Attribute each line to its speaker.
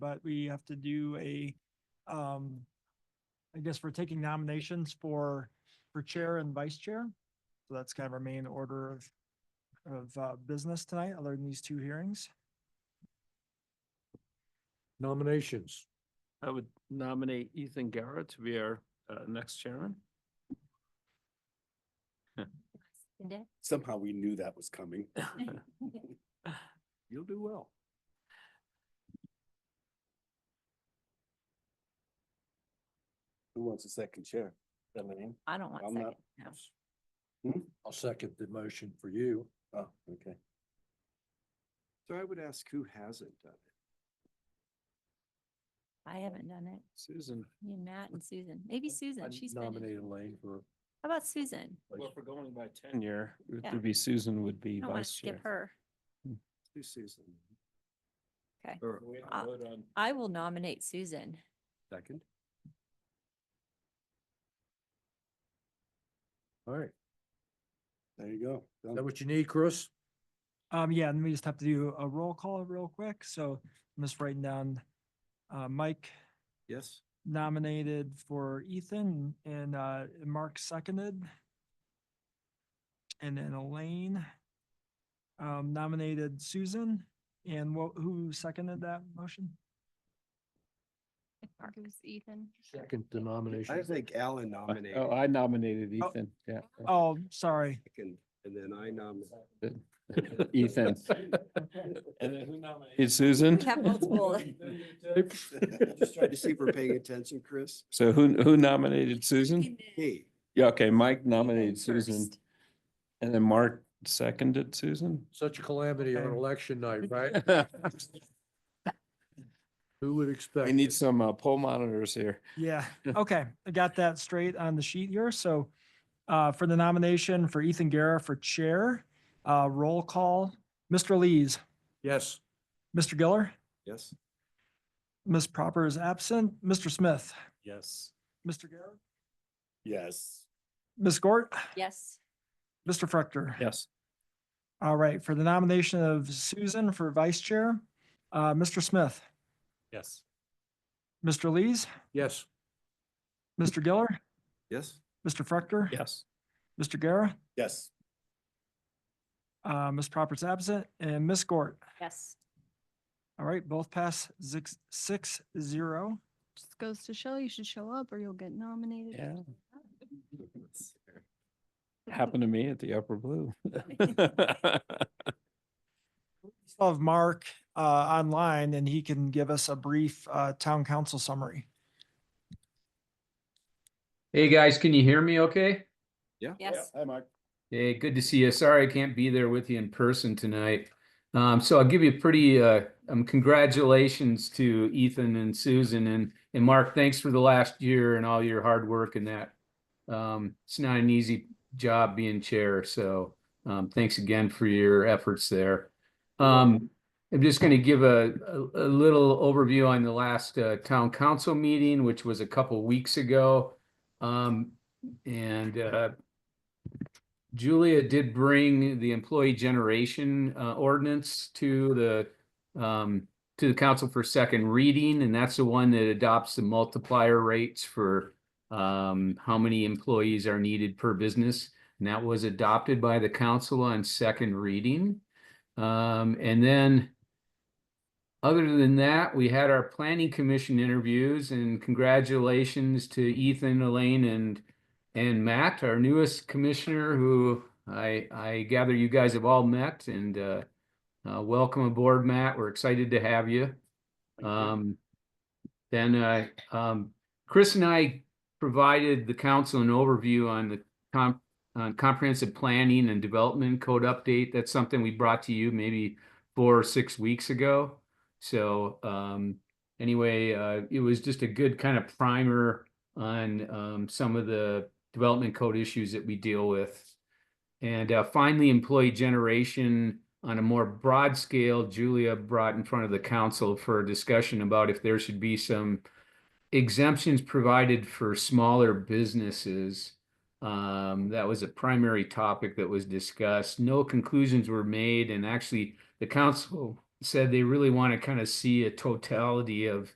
Speaker 1: but we have to do a, um, I guess we're taking nominations for, for chair and vice chair. So that's kind of our main order of, of, uh, business tonight, other than these two hearings.
Speaker 2: Nominations.
Speaker 3: I would nominate Ethan Garrett to be our uh, next chairman.
Speaker 4: Seconded.
Speaker 5: Somehow we knew that was coming.
Speaker 3: You'll do well.
Speaker 5: Who wants a second chair? Eileen?
Speaker 4: I don't want
Speaker 5: I'm not-
Speaker 4: second. No.
Speaker 3: Hmm?
Speaker 2: I'll second the motion for you.
Speaker 5: Oh, okay. So I would ask who hasn't done it?
Speaker 4: I haven't done it.
Speaker 3: Susan.
Speaker 4: Me and Matt and Susan. Maybe
Speaker 2: I
Speaker 4: Susan, she's been. in-
Speaker 2: nominate Elaine for.
Speaker 4: How about Susan?
Speaker 3: Well, if we're going by tenure, it
Speaker 4: Yeah.
Speaker 3: would be Susan would be
Speaker 4: I don't want to
Speaker 3: vice
Speaker 4: skip
Speaker 3: chair.
Speaker 4: her.
Speaker 5: Who's Susan?
Speaker 4: Okay.
Speaker 3: Or we um, have to
Speaker 4: Uh,
Speaker 3: vote on
Speaker 4: I will nominate Susan.
Speaker 5: Second?
Speaker 2: All right.
Speaker 5: There you go.
Speaker 2: Is
Speaker 5: Done.
Speaker 2: that what you need, Chris?
Speaker 1: Um, yeah, and we just have to do a roll call real quick. So I'm just writing down, uh, Mike
Speaker 3: Yes.
Speaker 1: nominated for Ethan and, uh, Mark seconded. And then Elaine, um, nominated Susan and what, who seconded that motion?
Speaker 4: Mark. Ethan.
Speaker 2: Second the
Speaker 5: I
Speaker 2: nomination.
Speaker 5: think Alan
Speaker 3: I-
Speaker 5: nominated.
Speaker 3: Oh, I nominated
Speaker 1: Oh.
Speaker 3: Ethan, yeah.
Speaker 1: Oh, sorry.
Speaker 5: second, And then I nominated.
Speaker 3: Ethan. And then who nominated? Susan.
Speaker 4: We have multiple.
Speaker 5: Just trying to see if we're paying attention, Chris.
Speaker 3: So who, who nominated Susan?
Speaker 5: Hey,
Speaker 3: Yeah, okay, Mike nominated
Speaker 4: Ethan
Speaker 3: Susan
Speaker 4: first.
Speaker 3: and then Mark seconded Susan.
Speaker 2: Such a calamity on
Speaker 1: Okay.
Speaker 2: election night, right? Who would expect?
Speaker 3: We need some uh, poll monitors here.
Speaker 1: Yeah, okay, I got that straight on the sheet here, so, uh, for the nomination for Ethan Guerra for chair, uh, roll call, Mr. Lees,
Speaker 2: Yes.
Speaker 1: Mr. Giller,
Speaker 5: yes.
Speaker 1: Ms. Proper is absent, Mr. Smith,
Speaker 3: Yes.
Speaker 1: Mr. Guerra,
Speaker 5: Yes.
Speaker 1: Ms. Gort,
Speaker 4: Yes,
Speaker 1: Mr. Fructer.
Speaker 3: Yes.
Speaker 1: All right, for the nomination of Susan for vice chair, uh, Mr. Smith,
Speaker 3: Yes.
Speaker 1: Mr. Lees,
Speaker 2: Yes.
Speaker 1: Mr. Giller,
Speaker 5: Yes.
Speaker 1: Mr. Fructer.
Speaker 3: Yes.
Speaker 1: Mr. Guerra,
Speaker 5: Yes.
Speaker 1: uh, Ms. Proper is absent, and Ms. Gort.
Speaker 4: yes.
Speaker 1: All right, both pass six, six, zero.
Speaker 6: just goes to show you should show up or you'll get nominated.
Speaker 3: Yeah. Happened to me at the Upper Blue.
Speaker 1: still have Mark uh, online and he can give us a brief uh, town council summary.
Speaker 7: Hey guys, can you hear me okay?
Speaker 5: Yeah.
Speaker 4: Yes.
Speaker 5: Hi, Mark.
Speaker 7: Hey, good to see you. Sorry I can't be there with you in person tonight. Um, so I'll give you a pretty uh, um, congratulations to Ethan and Susan and and Mark. Thanks for the last year and all your hard work and that. Um, it's not an easy job being chair, so um, thanks again for your efforts there. Um, I'm just going to give a, a, a little overview on the last uh, town council meeting, which was a couple weeks ago, um, and uh, Julia did bring the employee generation uh, ordinance to the um, to the council for second reading, and that's the one that adopts the multiplier rates for um, how many employees are needed per business. And that was adopted by the council on second reading. Um, and then other than that, we had our planning commission interviews and congratulations to Ethan, Elaine, and and Matt, our newest commissioner, who I, I gather you guys have all met and, uh, uh, welcome aboard, Matt. We're excited to have you. Um, then, uh, um, Chris and I provided the council an overview on the comp, on comprehensive planning and development code update. That's something we brought to you maybe four or six weeks ago. So, um, anyway, uh, it was just a good kind of primer on um, some of the development code issues that we deal with. And uh, finally, employee generation on a more broad scale, Julia brought in front of the council for a discussion about if there should be some exemptions provided for smaller businesses. Um, that was a primary topic that was discussed. No conclusions were made, and actually, the council said they really want to kind of see a totality of